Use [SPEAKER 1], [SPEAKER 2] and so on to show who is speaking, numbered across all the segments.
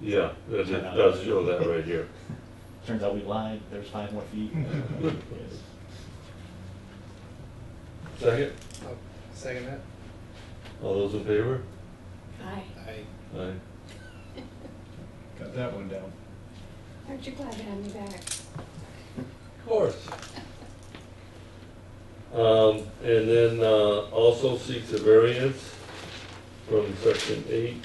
[SPEAKER 1] Yeah, it it does show that right here.
[SPEAKER 2] Turns out we lied, there's five more feet. Yes.
[SPEAKER 1] Second,
[SPEAKER 3] I'll second that.
[SPEAKER 1] all those in favor?
[SPEAKER 4] Aye.
[SPEAKER 3] I,
[SPEAKER 1] Aye.
[SPEAKER 5] Got that one down.
[SPEAKER 4] Aren't you glad to have me back?
[SPEAKER 1] Of course. Um, and then, uh, also seeks a variance from section eight,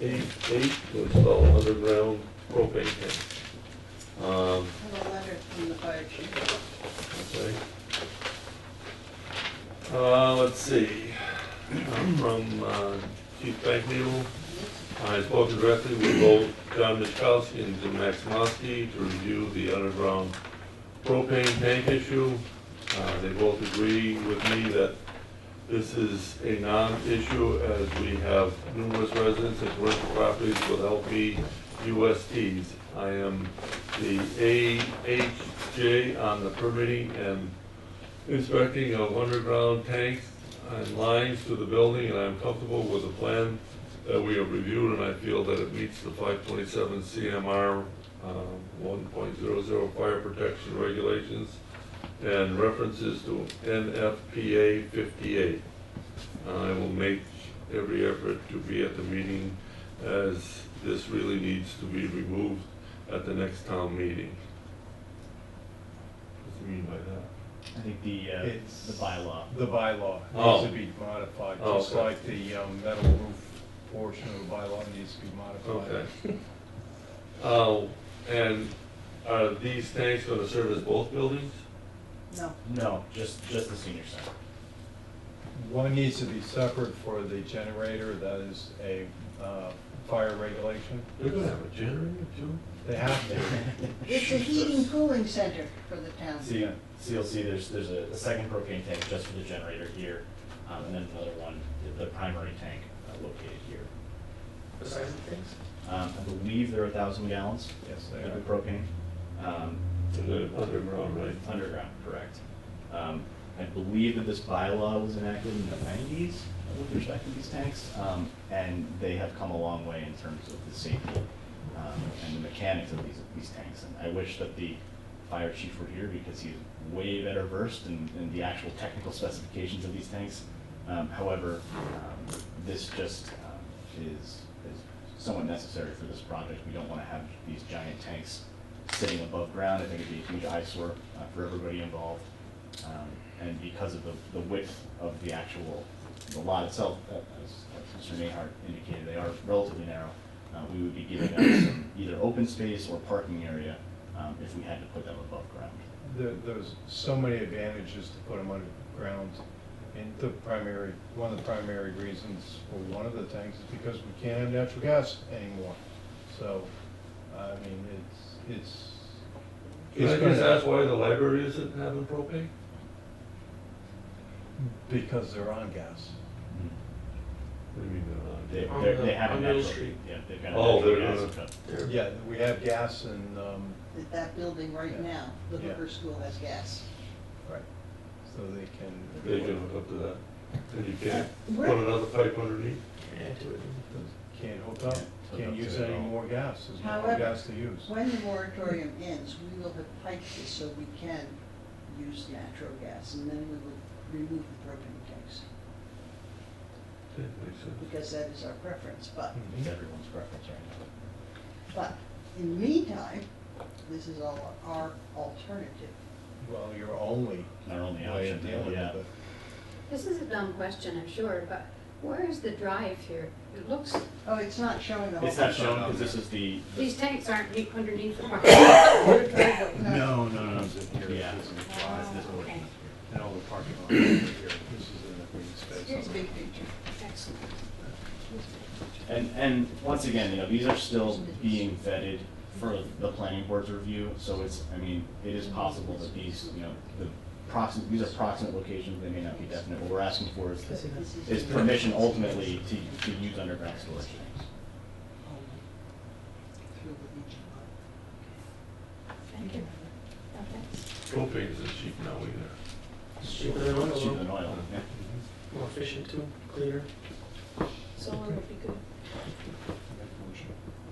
[SPEAKER 1] eight, eight to install underground propane tank. Um,
[SPEAKER 6] I have a letter from the fire chief.
[SPEAKER 1] Okay. Uh, let's see, I'm from, uh, Chief Bankneal. I spoke directly with both John Michkowski and Jim Maximowski to review the underground propane tank issue. Uh, they both agree with me that this is a non-issue as we have numerous residents and commercial properties with LP USTs. I am the AHJ on the permitting and inspecting of underground tanks and lines to the building, and I'm comfortable with the plan that we have reviewed, and I feel that it meets the five twenty-seven CMR uh, one point zero zero fire protection regulations and references to NFPA fifty-eight. I will make every effort to be at the meeting as this really needs to be removed at the next town meeting. What do you mean by that?
[SPEAKER 2] I think the, uh,
[SPEAKER 5] It's-
[SPEAKER 2] the bylaw.
[SPEAKER 5] The bylaw
[SPEAKER 1] Oh.
[SPEAKER 5] needs to be modified,
[SPEAKER 1] Oh,
[SPEAKER 5] just
[SPEAKER 1] okay.
[SPEAKER 5] like the um, metal roof portion of the bylaw needs to be
[SPEAKER 1] Okay.
[SPEAKER 5] modified.
[SPEAKER 1] Oh, and are these tanks gonna service both buildings?
[SPEAKER 6] No,
[SPEAKER 2] No, just, just the senior center.
[SPEAKER 5] One needs to be separate for the generator, that is a uh, fire regulation.
[SPEAKER 1] They're gonna have a generator too?
[SPEAKER 5] They have to.
[SPEAKER 6] it's a heating cooling center for the town.
[SPEAKER 2] So you, so you'll see there's, there's a, a second propane tank just for the generator here, um, and then another one, the- the primary tank uh, located here.
[SPEAKER 3] the size of things.
[SPEAKER 2] Um, I believe they're a thousand gallons
[SPEAKER 5] Yes, they
[SPEAKER 2] of
[SPEAKER 5] are.
[SPEAKER 2] propane, um,
[SPEAKER 1] And they're underground, right?
[SPEAKER 2] underground, correct. Um, I believe that this bylaw was enacted in the nineties with respect to these tanks, um, and they have come a long way in terms of the safety, um, and the mechanics of these, these tanks. And I wish that the fire chief were here because he's way better versed in, in the actual technical specifications of these tanks. Um, however, um, this just, um, is, is somewhat necessary for this project. We don't wanna have these giant tanks sitting above ground. I think it'd be a huge eyesore uh, for everybody involved. Um, And because of the, the width of the actual, the lot itself, uh, as as Mr. Nahart indicated, they are relatively narrow. Uh, We would be giving up some either open space or parking area um, if we had to put them above ground.
[SPEAKER 5] There- There's so many advantages to put them underground. And the primary, one of the primary reasons for one of the tanks is because we can't have natural gas anymore. So, I mean, it's, it's.
[SPEAKER 1] Can
[SPEAKER 5] it's
[SPEAKER 1] I
[SPEAKER 5] gonna-
[SPEAKER 1] just ask why the library isn't having propane?
[SPEAKER 5] Because they're on gas.
[SPEAKER 1] What do you mean
[SPEAKER 2] They,
[SPEAKER 1] they're not?
[SPEAKER 3] On
[SPEAKER 2] they're- they
[SPEAKER 3] the-
[SPEAKER 2] have a
[SPEAKER 3] on Middle
[SPEAKER 2] natural,
[SPEAKER 3] Street.
[SPEAKER 2] yeah, they've got a
[SPEAKER 1] Oh,
[SPEAKER 2] natural
[SPEAKER 1] they're
[SPEAKER 2] gas
[SPEAKER 1] not-
[SPEAKER 2] hookup.
[SPEAKER 1] They're-
[SPEAKER 5] Yeah, we have gas and, um,
[SPEAKER 6] That that building right now, the
[SPEAKER 5] Yeah.
[SPEAKER 6] Hooper School has gas.
[SPEAKER 5] right, so they
[SPEAKER 1] They
[SPEAKER 5] can,
[SPEAKER 1] can hook up to that, and you can't
[SPEAKER 6] Where-
[SPEAKER 1] put another pipe underneath?
[SPEAKER 3] Can't do it.
[SPEAKER 5] can't hook up,
[SPEAKER 2] Yeah, hook
[SPEAKER 5] can't
[SPEAKER 2] up
[SPEAKER 5] use
[SPEAKER 2] to it
[SPEAKER 5] any
[SPEAKER 2] all.
[SPEAKER 5] more gas, there's no more
[SPEAKER 6] However,
[SPEAKER 5] gas to use.
[SPEAKER 6] When the moratorium ends, we will have piped it so we can use natural gas, and then we will remove the propane tanks,
[SPEAKER 1] Yeah, makes sense.
[SPEAKER 6] because that is our preference, but,
[SPEAKER 5] Hmm.
[SPEAKER 2] It's everyone's preference right now.
[SPEAKER 6] but in the meantime, this is all our alternative.
[SPEAKER 5] Well, your only
[SPEAKER 2] Their only
[SPEAKER 5] way
[SPEAKER 2] option,
[SPEAKER 5] of dealing with
[SPEAKER 2] yeah.
[SPEAKER 5] it.
[SPEAKER 4] This is a dumb question, I'm sure, but where is the drive here? It looks,
[SPEAKER 6] Oh, it's not showing the whole.
[SPEAKER 2] It's not shown because this is the, the-
[SPEAKER 4] these tanks aren't deep underneath the parking.
[SPEAKER 6] We're driving-
[SPEAKER 5] No, no, Oh, no,
[SPEAKER 2] yeah,
[SPEAKER 5] this
[SPEAKER 2] it's
[SPEAKER 5] is,
[SPEAKER 2] this portion.
[SPEAKER 5] and all the parking lot over here, this is in the green space.
[SPEAKER 6] Here's the big picture.
[SPEAKER 4] Excellent.
[SPEAKER 2] And, and once again, you know, these are still being vetted for the planning board's review, so it's, I mean, it is possible that these, you know, the proximate, these are proximate locations, they may not be definite. What we're asking for is,
[SPEAKER 6] This is-
[SPEAKER 2] is permission ultimately to, to use underground storage tanks.
[SPEAKER 6] Through the beach.
[SPEAKER 4] Thank you. Oh, thanks.
[SPEAKER 1] Propane isn't cheap now either.
[SPEAKER 3] It's cheaper than oil,
[SPEAKER 2] It's cheaper than
[SPEAKER 3] though.
[SPEAKER 2] oil, yeah.
[SPEAKER 3] more efficient too, cleaner.
[SPEAKER 4] Solar would be good.